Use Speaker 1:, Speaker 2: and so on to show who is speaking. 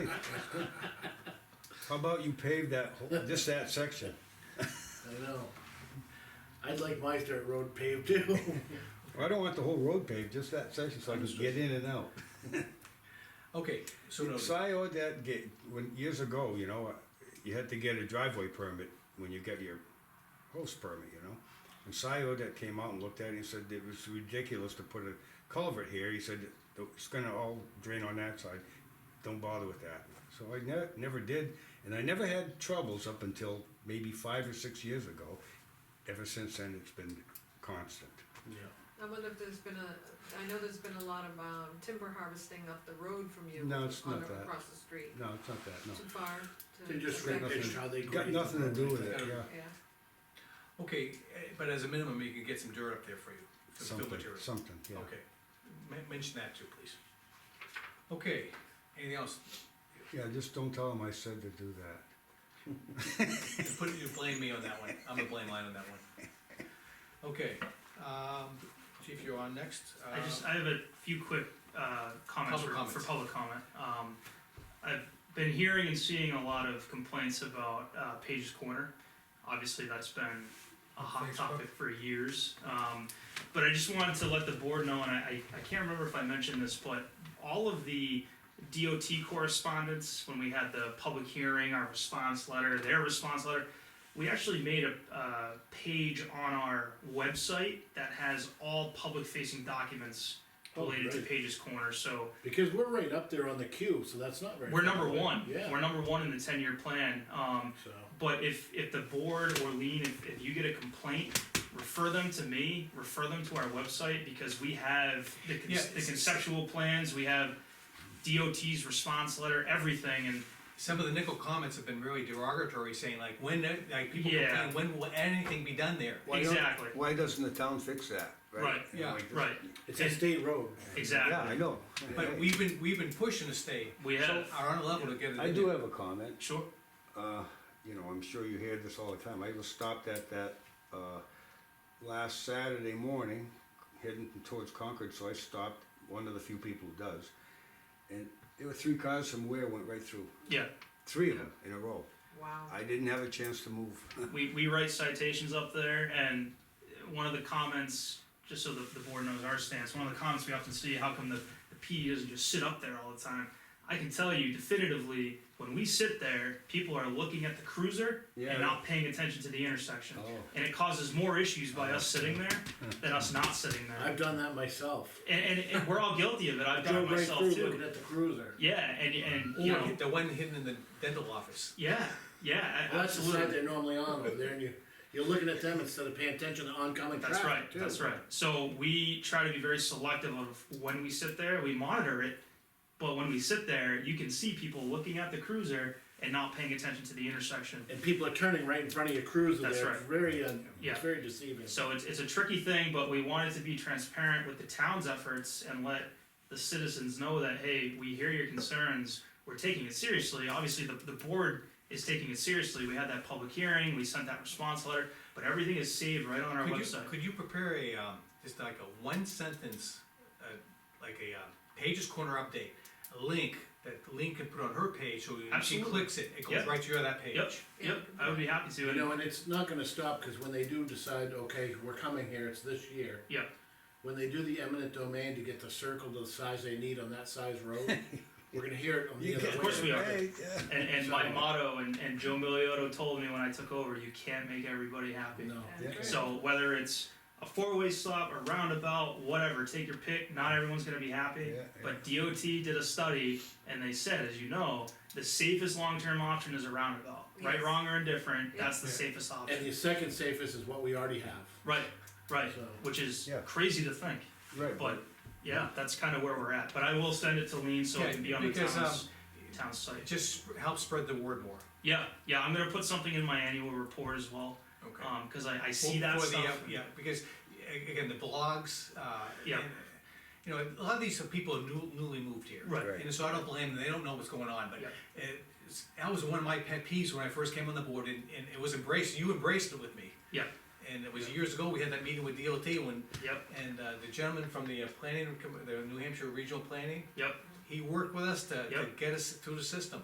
Speaker 1: How about you pave that, whole- just that section?
Speaker 2: I know. I'd like my dirt road paved too.
Speaker 1: I don't want the whole road paved, just that section so I can get in and out.
Speaker 3: Okay, so noted.
Speaker 1: So I owed that gate, when, years ago, you know, uh, you had to get a driveway permit when you got your host permit, you know? And Scio that came out and looked at it and said it was ridiculous to put a culvert here, he said it's gonna all drain on that side, don't bother with that. So I never, never did, and I never had troubles up until maybe five or six years ago. Ever since then, it's been constant.
Speaker 2: Yeah.
Speaker 4: I wonder if there's been a, I know there's been a lot of, um, timber harvesting up the road from you.
Speaker 1: No, it's
Speaker 4: on
Speaker 1: not
Speaker 4: the-
Speaker 1: that.
Speaker 4: Across the street,
Speaker 1: No, it's not that, no.
Speaker 4: too far to.
Speaker 2: They just
Speaker 1: Got
Speaker 4: affect-
Speaker 1: nothing-
Speaker 2: repitched how they grade.
Speaker 1: Got nothing to do with it, yeah.
Speaker 4: Yeah,
Speaker 3: Okay, eh, but as a minimum, you can get some dirt up there for you, some fill
Speaker 1: Something,
Speaker 3: material.
Speaker 1: something, yeah.
Speaker 3: Okay, Men- mention that too, please. Okay, anything else?
Speaker 1: Yeah, just don't tell them I said to do that.
Speaker 3: You Put, you blame me on that one, I'm the blame line on that one. Okay, um, chief, you're on next.
Speaker 5: I just,
Speaker 3: Uh,
Speaker 5: I have a few quick, uh, comments
Speaker 3: Public
Speaker 5: for, for
Speaker 3: comments.
Speaker 5: public comment. Um, I've been hearing and seeing a lot of complaints about, uh, Page's Corner. Obviously, that's been a hot
Speaker 1: Facebook.
Speaker 5: topic for years. Um, but I just wanted to let the board know, and I, I, I can't remember if I mentioned this, but all of the DOT correspondence, when we had the public hearing, our response letter, their response letter, we actually made a, uh page on our website that has all public-facing documents
Speaker 2: Oh,
Speaker 5: related to
Speaker 2: great.
Speaker 5: Page's Corner, so
Speaker 2: Because we're right up there on the queue, so that's not very.
Speaker 5: we're
Speaker 2: far
Speaker 5: number
Speaker 2: away.
Speaker 5: one.
Speaker 2: Yeah,
Speaker 5: We're number one in the ten-year plan, um,
Speaker 2: so,
Speaker 5: but if, if the board or Lean, if, if you get a complaint, refer them to me, refer them to our website, because we have the, con-
Speaker 3: Yeah,
Speaker 5: the
Speaker 3: it's-
Speaker 5: conceptual plans, we have DOT's response letter, everything, and
Speaker 3: Some of the nickel comments have been really derogatory, saying like, when, uh, like, people
Speaker 5: Yeah.
Speaker 3: complain, when will anything be done there?
Speaker 1: Why don't-
Speaker 5: exactly,
Speaker 1: Why doesn't the town fix that?
Speaker 5: Right,
Speaker 1: You know,
Speaker 3: yeah,
Speaker 1: like this-
Speaker 5: right,
Speaker 2: it's a state road.
Speaker 5: exactly.
Speaker 1: Yeah, I know.
Speaker 3: But we've been, we've been pushing to stay.
Speaker 5: We have.
Speaker 3: Are on a level to get it in
Speaker 1: I do
Speaker 3: there.
Speaker 1: have a comment.
Speaker 5: Sure.
Speaker 1: Uh, you know, I'm sure you hear this all the time. I was stopped at that, uh, last Saturday morning, heading towards Concord, so I stopped, one of the few people who does. And there were three cars from Ware went right through,
Speaker 5: Yeah,
Speaker 1: three of them in a row.
Speaker 4: wow.
Speaker 1: I didn't have a chance to move.
Speaker 5: we, we write citations up there, and one of the comments, just so the, the board knows our stance, one of the comments we often see, how come the, the PD doesn't just sit up there all the time? I can tell you definitively, when we sit there, people are looking at the cruiser
Speaker 1: Yeah.
Speaker 5: and not paying attention to the intersection.
Speaker 1: Oh.
Speaker 5: And it causes more issues by us sitting there than us not sitting there.
Speaker 2: I've done that myself.
Speaker 5: And, and, and we're all guilty of it. I've done
Speaker 2: Drove
Speaker 5: it
Speaker 2: right
Speaker 5: myself
Speaker 2: through looking
Speaker 5: too.
Speaker 2: at the cruiser.
Speaker 5: Yeah, and, and you
Speaker 3: Or
Speaker 5: know,
Speaker 3: the one hidden in the dental office.
Speaker 5: yeah, yeah,
Speaker 2: Well, that's the
Speaker 5: absolutely.
Speaker 2: side they're normally on over there, and you, you're looking at them instead of paying attention to oncoming traffic.
Speaker 5: That's right,
Speaker 2: too.
Speaker 5: that's right. So we try to be very selective of when we sit there, we monitor it, but when we sit there, you can see people looking at the cruiser and not paying attention to the intersection.
Speaker 2: And people are turning right in front of your cruiser
Speaker 5: That's
Speaker 2: there,
Speaker 5: right.
Speaker 2: it's very, uh,
Speaker 5: Yeah.
Speaker 2: it's very deceiving.
Speaker 5: So it's, it's a tricky thing, but we wanted to be transparent with the town's efforts and let the citizens know that, hey, we hear your concerns, we're taking it seriously. Obviously, the, the board is taking it seriously. We had that public hearing, we sent that response letter, but everything is saved right on our
Speaker 3: Could you,
Speaker 5: website.
Speaker 3: could you prepare a, um, just like a one sentence, uh, like a, um, Page's Corner update, a link that Lean can put on her page, so when she
Speaker 5: Absolutely.
Speaker 3: clicks it, it goes
Speaker 5: Yep.
Speaker 3: right to your- that page.
Speaker 5: Yep, yep, I would be happy to.
Speaker 2: You
Speaker 5: And-
Speaker 2: know, and it's not gonna stop, cause when they do decide, okay, we're coming here, it's this year.
Speaker 5: Yeah.
Speaker 2: When they do the eminent domain to get the circle to the size they need on that size road, we're gonna hear it on the
Speaker 1: You
Speaker 2: other way.
Speaker 1: get-
Speaker 5: Of course we are.
Speaker 1: Hey, yeah.
Speaker 5: And, and my
Speaker 2: So-
Speaker 5: motto, and, and Joe Miliotto told me when I took over, you can't make everybody happy.
Speaker 2: No,
Speaker 4: Yeah.
Speaker 1: Yeah.
Speaker 5: So whether it's a four-way stop, a roundabout, whatever, take your pick. Not everyone's going to be happy.
Speaker 1: Yeah,
Speaker 5: But DOT did a study, and they said, as you know, the safest long-term option is a roundabout. Right,
Speaker 4: Yes.
Speaker 5: wrong, or indifferent, that's the
Speaker 3: Yeah.
Speaker 5: safest
Speaker 2: and
Speaker 5: option.
Speaker 2: the second safest is what we already have.
Speaker 5: Right, right,
Speaker 2: So-
Speaker 5: which is
Speaker 1: Yeah.
Speaker 5: crazy to think.
Speaker 1: Right,
Speaker 5: But yeah, that's kind of where we're at. But I will send it to Lean so it
Speaker 3: Yeah,
Speaker 5: can be on the
Speaker 3: because,
Speaker 2: um,
Speaker 5: town's, town's site.
Speaker 3: It just sp- helps spread the word more.
Speaker 5: Yeah, yeah, I'm gonna put something in my annual report as well,
Speaker 3: Okay.
Speaker 5: um, cause I, I see that
Speaker 3: for the, uh,
Speaker 5: stuff.
Speaker 3: Yeah, because, a- again, the blogs, uh.
Speaker 5: Yeah.
Speaker 3: and, You know, a lot of these are people who new- newly moved here.
Speaker 5: Right.
Speaker 1: Right.
Speaker 3: And so I don't blame them, they don't know what's going on, but
Speaker 5: Yeah.
Speaker 3: it's, that was one of my pet peeves when I first came on the board, and, and it was embraced, you embraced it with me.
Speaker 5: Yeah,
Speaker 3: And it was years ago, we had that meeting with DOT when,
Speaker 5: yep,
Speaker 3: and uh, the gentleman from the uh, planning, com- the New Hampshire Regional Planning,
Speaker 5: yep.
Speaker 3: he worked with us to, to
Speaker 5: Yep.
Speaker 3: get us through the system.